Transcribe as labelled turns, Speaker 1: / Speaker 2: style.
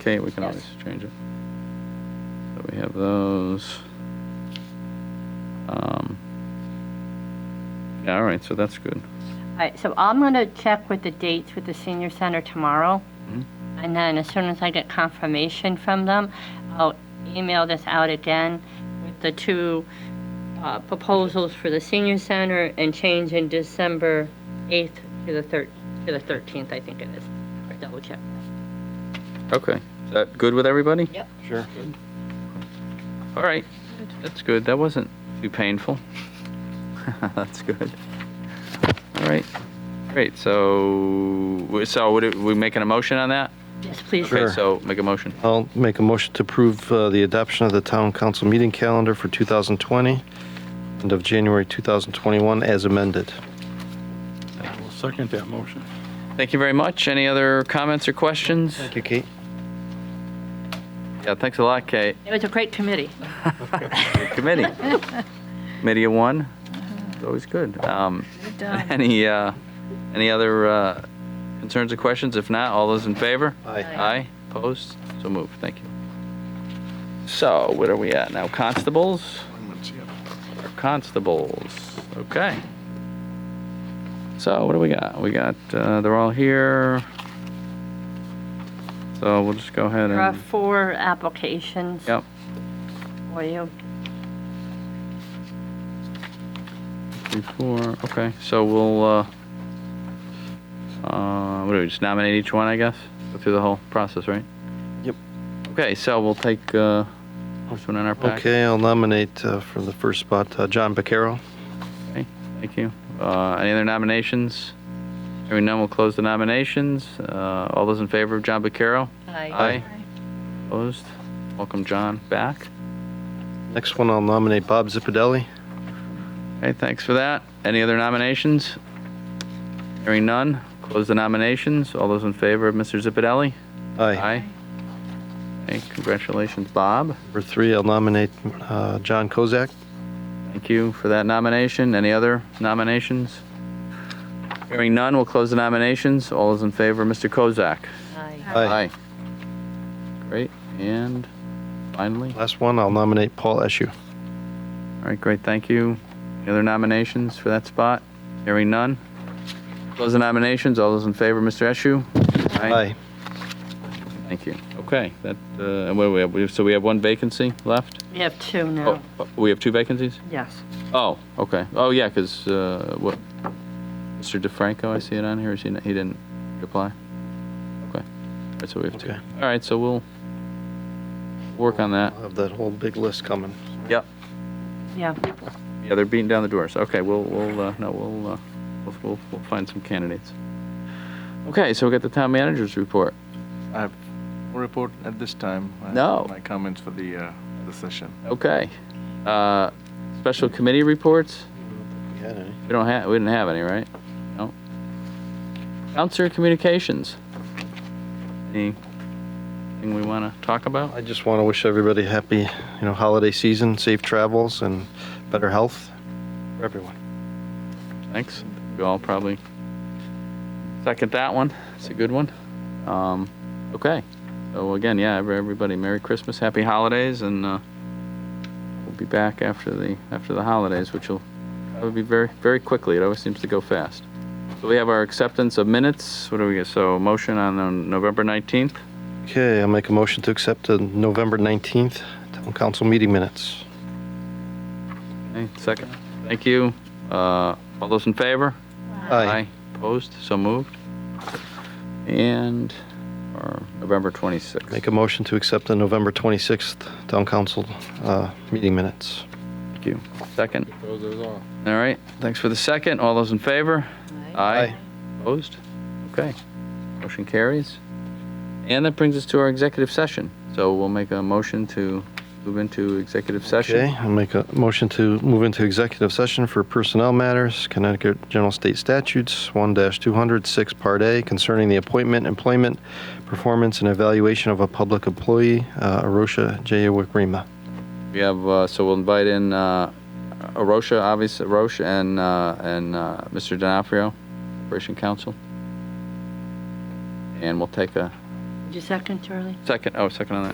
Speaker 1: Okay, we can
Speaker 2: Yes.
Speaker 1: always change it. So we have those. Um, Yeah, all right, so that's good.
Speaker 2: All right, so I'm going to check with the dates with the senior center tomorrow.
Speaker 1: Mm-hmm.
Speaker 2: And then as soon as I get confirmation from them, I'll email this out again with the two uh, proposals for the senior center and change in December 8th to the thir to the 13th, I think it is. Or Double check.
Speaker 1: Okay, is that good with everybody?
Speaker 2: Yep.
Speaker 3: Sure.
Speaker 1: All right, that's good. That wasn't too painful. That's good. All right, great, so, so would it, we making a motion on that?
Speaker 2: Yes, please.
Speaker 3: Sure.
Speaker 1: Okay, so make a motion.
Speaker 3: I'll make a motion to approve uh, the adoption of the town council meeting calendar for 2020, end of January 2021, as amended.
Speaker 4: I will second that motion.
Speaker 1: Thank you very much. Any other comments or questions?
Speaker 3: Thank you, Kate.
Speaker 1: Yeah, thanks a lot, Kate.
Speaker 2: It was a great committee.
Speaker 1: committee. Committee of one, it's always good. Um, Any, uh, any other uh, concerns or questions? If not, all those in favor?
Speaker 3: Aye.
Speaker 1: Aye, opposed, so moved, thank you. So, what are we at now, constables? Our Constables, okay. So what do we got? We got, uh, they're all here. So we'll just go ahead
Speaker 2: There are
Speaker 1: and,
Speaker 2: four applications
Speaker 1: yep.
Speaker 2: for you.
Speaker 1: Before, okay, so we'll, uh, uh, what do we, just nominate each one, I guess? Go through the whole process, right?
Speaker 3: Yep.
Speaker 1: Okay, so we'll take, uh, first one in our pack.
Speaker 3: Okay, I'll nominate uh, for the first spot, uh, John Vaccaro.
Speaker 1: Okay, Thank you. Uh, any other nominations? Hearing none, we'll close the nominations. Uh, all those in favor of John Vaccaro? Aye. Opposed? Welcome, John, back.
Speaker 3: Next one, I'll nominate Bob Zipadelli.
Speaker 1: Okay, thanks for that. Any other nominations? Hearing none, close the nominations. All those in favor of Mr. Zipadelli?
Speaker 3: Aye.
Speaker 1: Aye. Hey, congratulations, Bob.
Speaker 3: Number three, I'll nominate uh, John Kozak.
Speaker 1: Thank you for that nomination. Any other nominations? Hearing none, we'll close the nominations. All those in favor, Mr. Kozak?
Speaker 2: Aye.
Speaker 3: Aye.
Speaker 1: Great, and finally, all
Speaker 3: Last one, I'll nominate Paul Eschew.
Speaker 1: right, great, thank you. Any other nominations for that spot? Hearing none. Close the nominations. All those in favor, Mr. Eschew?
Speaker 3: Aye.
Speaker 1: Thank you. Okay, that, uh, and what do we have? We have? So we have one vacancy left?
Speaker 2: We have two
Speaker 1: Oh,
Speaker 2: now.
Speaker 1: we have two vacancies?
Speaker 2: Yes.
Speaker 1: Oh, okay. Oh, yeah, because, uh, what, Mr. DeFranco, I see it on here, is he, he didn't reply? Okay. All right, so we have two.
Speaker 3: Okay.
Speaker 1: All right, so we'll work on that.
Speaker 3: I'll have that whole big list coming.
Speaker 1: Yep.
Speaker 2: Yeah.
Speaker 1: Yeah, they're beating down the doors. Okay, we'll, we'll, uh, no, we'll, uh, we'll, we'll, we'll find some candidates. Okay, so we got the town manager's report.
Speaker 5: I have no report at this time. I have
Speaker 1: No.
Speaker 5: My comments for the, uh, the session.
Speaker 1: Okay. Uh, special committee reports?
Speaker 3: You had any?
Speaker 1: We don't have, we didn't have any, right? No. Counselor communications. Anything we want to talk about?
Speaker 3: I just want to wish everybody happy, you know, holiday season, safe travels, and better health for everyone.
Speaker 1: Thanks. We all probably second that one. It's a good one. Um, okay. So again, yeah, every- everybody, Merry Christmas, Happy Holidays, and uh, we'll be back after the after the holidays, which will probably be very very quickly. It always seems to go fast. So we have our acceptance of minutes. What do we get? So motion on um, November nineteenth.
Speaker 3: Okay, I'll make a motion to accept the November 19th town council meeting minutes.
Speaker 1: Okay, second. Thank you. Uh, all those in favor?
Speaker 3: Aye.
Speaker 1: Opposed? So moved. And our November 26th.
Speaker 3: Make a motion to accept the November 26th town council uh, meeting minutes.
Speaker 1: Thank you. Second. All right. Thanks for the second. All those in favor?
Speaker 3: Aye.
Speaker 1: Opposed? Okay. Motion carries. And that brings us to our executive session. So we'll make a motion to move into executive
Speaker 3: Okay,
Speaker 1: session.
Speaker 3: I'll make a motion to move into executive session for personnel matters, Connecticut General State Statutes 1-206, Part A, concerning the appointment, employment, performance, and evaluation of a public employee, uh, Arosha Jayawagrima.
Speaker 1: We have, uh, so we'll invite in, uh, Arosha, obviously, Arosha and, uh, and, uh, Mr. D'Onofrio, Operation Council. And we'll take a
Speaker 2: Did you second, Charlie?
Speaker 1: Second, oh, second on that.